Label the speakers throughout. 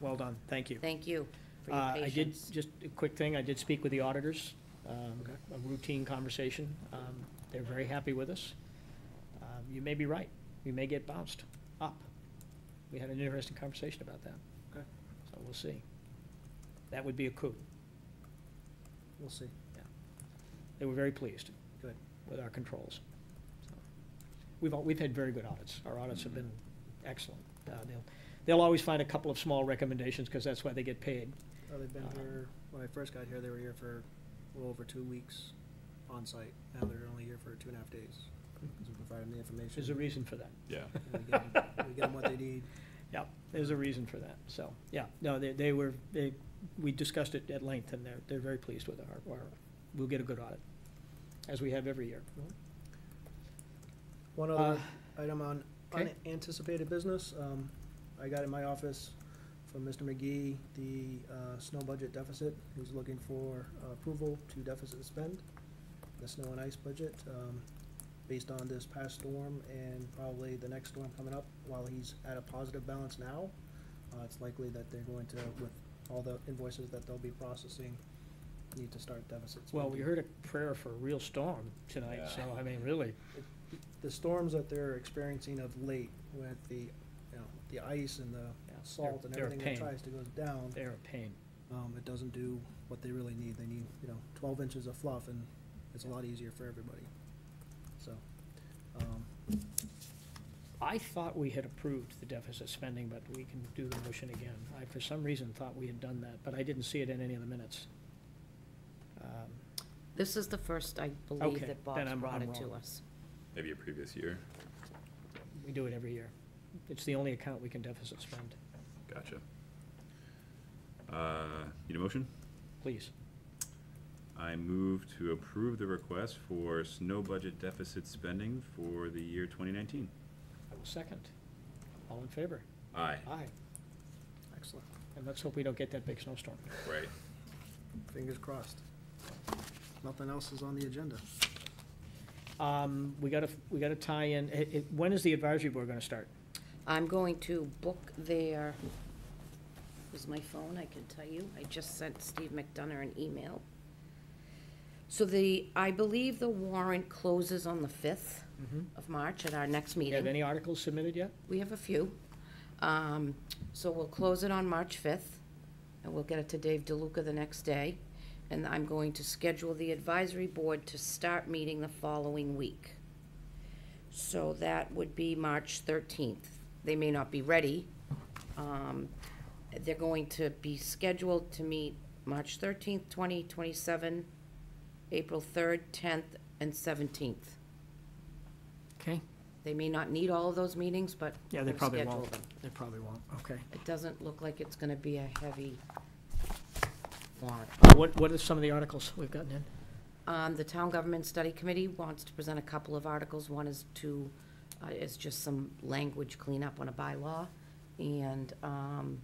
Speaker 1: well done, thank you.
Speaker 2: Thank you for
Speaker 1: Uh,
Speaker 2: your
Speaker 1: I did,
Speaker 2: patience.
Speaker 1: just a quick thing, I did speak with the auditors, um,
Speaker 3: Okay.
Speaker 1: a routine conversation. Um, They're very happy with us. Um, You may be right, we may get bounced up. We had an interesting conversation about that.
Speaker 3: Okay.
Speaker 1: So we'll see. That would be a coup.
Speaker 3: We'll see.
Speaker 1: They were very pleased.
Speaker 3: Good.
Speaker 1: With our controls. So, We've, al- we've had very good audits. Our audits have been excellent. Uh, They'll, they'll always find a couple of small recommendations because that's why they get paid.
Speaker 3: Well, they've been
Speaker 1: Uh,
Speaker 3: here, when I first got here, they were here for a little over two weeks on site. Now they're only here for two and a half days. Because we provided them the information.
Speaker 1: There's a reason for that.
Speaker 4: Yeah.
Speaker 3: and We get them- we get them what they need.
Speaker 1: Yeah, there's a reason for that, so, yeah, no, they, they were, they, we discussed it at length, and they're, they're very pleased with our, our, we'll get a good audit, as we have every year.
Speaker 3: One
Speaker 1: Uh,
Speaker 3: other item on
Speaker 1: okay.
Speaker 3: unanticipated business, um, I got in my office from Mr. McGee, the, uh, snow budget deficit, he's looking for uh, approval to deficit spend, the snow and ice budget, um, based on this past storm and probably the next storm coming up, while he's at a positive balance now, uh, it's likely that they're going to, with all the invoices that they'll be processing, need to start deficits.
Speaker 1: Well, we heard a prayer for a real storm tonight, so, I mean, really,
Speaker 3: the storms that they're experiencing of late with the, you know, the ice and the
Speaker 1: Yeah, they're-
Speaker 3: salt and
Speaker 1: they're a
Speaker 3: everything that
Speaker 1: pain.
Speaker 3: tries to go down,
Speaker 1: they're a pain.
Speaker 3: um, it doesn't do what they really need. They need, you know, twelve inches of fluff and it's a lot easier for everybody. So, um,
Speaker 1: I thought we had approved the deficit spending, but we can do the motion again. I, for some reason, thought we had done that, but I didn't see it in any of the minutes. Um,
Speaker 2: This is the first, I believe, that
Speaker 1: Okay, then
Speaker 2: Bob's
Speaker 1: I'm-
Speaker 2: brought
Speaker 1: I'm
Speaker 2: it to
Speaker 1: wrong.
Speaker 2: us.
Speaker 4: Maybe a previous year.
Speaker 1: We do it every year. It's the only account we can deficit spend,
Speaker 4: Gotcha. Uh, Need a motion?
Speaker 1: please.
Speaker 4: I move to approve the request for snow budget deficit spending for the year 2019.
Speaker 1: I will second. All in favor?
Speaker 4: Aye.
Speaker 1: Aye.
Speaker 3: excellent.
Speaker 1: And let's hope we don't get that big snowstorm.
Speaker 4: Right.
Speaker 3: Fingers crossed. Nothing else is on the agenda.
Speaker 1: Um, we gotta, we gotta tie in, it, it, when is the advisory board gonna start?
Speaker 2: I'm going to book their, is my phone, I can tell you. I just sent Steve McDonough an email. So the, I believe the warrant closes on the 5th of March at our next
Speaker 1: Do you have
Speaker 2: meeting.
Speaker 1: any articles submitted yet?
Speaker 2: We have a few. Um, So we'll close it on March 5th, and we'll get it to Dave DeLuca the next day. And I'm going to schedule the advisory board to start meeting the following week. So that would be March 13th. They may not be ready. Um, They're going to be scheduled to meet March 13th, 20, 27, April 3rd, 10th, and 17th.
Speaker 1: Okay.
Speaker 2: They may not need all of those meetings, but.
Speaker 1: Yeah, they
Speaker 2: we'll
Speaker 1: probably
Speaker 2: schedule
Speaker 1: won't.
Speaker 2: them.
Speaker 1: They probably won't, okay.
Speaker 2: It doesn't look like it's gonna be a heavy warrant.
Speaker 1: Uh, What, what are some of the articles we've gotten in?
Speaker 2: Um, the Town Government Study Committee wants to present a couple of articles. One is to, uh, is just some language cleanup on a bylaw. And, um,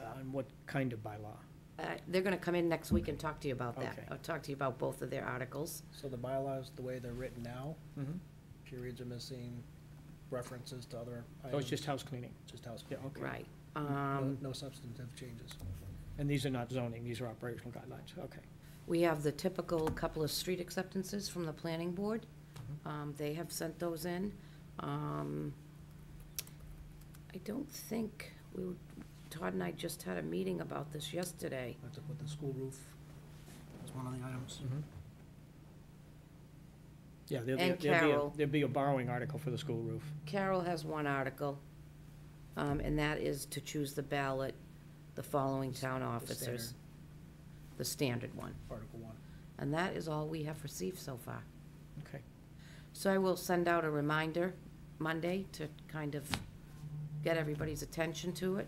Speaker 1: Uh, And what kind of bylaw?
Speaker 2: uh, they're gonna come in next week and talk to you about
Speaker 1: Okay.
Speaker 2: that. I'll talk to you about both of their articles.
Speaker 3: So the bylaws, the way they're written now,
Speaker 1: Mm-hmm.
Speaker 3: periods are missing, references to other
Speaker 1: Oh,
Speaker 3: items,
Speaker 1: it's just house cleaning,
Speaker 3: just house.
Speaker 1: yeah, okay.
Speaker 2: Right.
Speaker 3: No
Speaker 2: Um,
Speaker 3: no substantive changes.
Speaker 1: And these are not zoning, these are operational guidelines, okay.
Speaker 2: We have the typical couple of street acceptances from the planning board. Um, they have sent those in. Um, I don't think, we, were- Todd and I just had a meeting about this yesterday.
Speaker 3: I have to put the school roof as one of the
Speaker 1: Mm-hmm.
Speaker 3: items.
Speaker 1: Yeah, there'll be,
Speaker 2: And
Speaker 1: there'll be,
Speaker 2: Carol.
Speaker 1: a- there'll be a borrowing article for the school roof.
Speaker 2: Carol has one article, um, and that is to choose the ballot, the following town officers. The standard one.
Speaker 3: Article one.
Speaker 2: And that is all we have received so far.
Speaker 1: Okay,
Speaker 2: So I will send out a reminder Monday to kind of get everybody's attention to it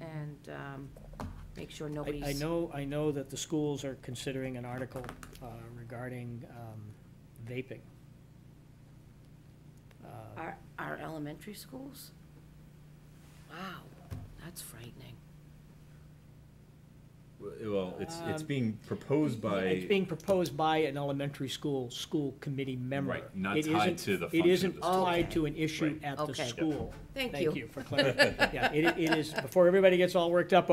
Speaker 2: and um, make sure
Speaker 1: I,
Speaker 2: nobody's.
Speaker 1: I know, I know that the schools are considering an article uh, regarding um, vaping. Uh,
Speaker 2: Our, our elementary schools? Wow, that's frightening.
Speaker 4: Well, it's, it's
Speaker 1: Um,
Speaker 4: being proposed by.
Speaker 1: It's being proposed by an elementary school, school committee member.
Speaker 4: Right, not
Speaker 1: It
Speaker 4: tied
Speaker 1: isn't-
Speaker 4: to the
Speaker 1: It
Speaker 4: function of
Speaker 1: isn't
Speaker 4: the school.
Speaker 1: tied to an issue
Speaker 4: Right.
Speaker 1: at the
Speaker 2: Okay. Yep.
Speaker 1: school.
Speaker 2: Thank
Speaker 1: Thank
Speaker 2: you.
Speaker 1: you for clarifying. Yeah, it, it is, before everybody gets all worked up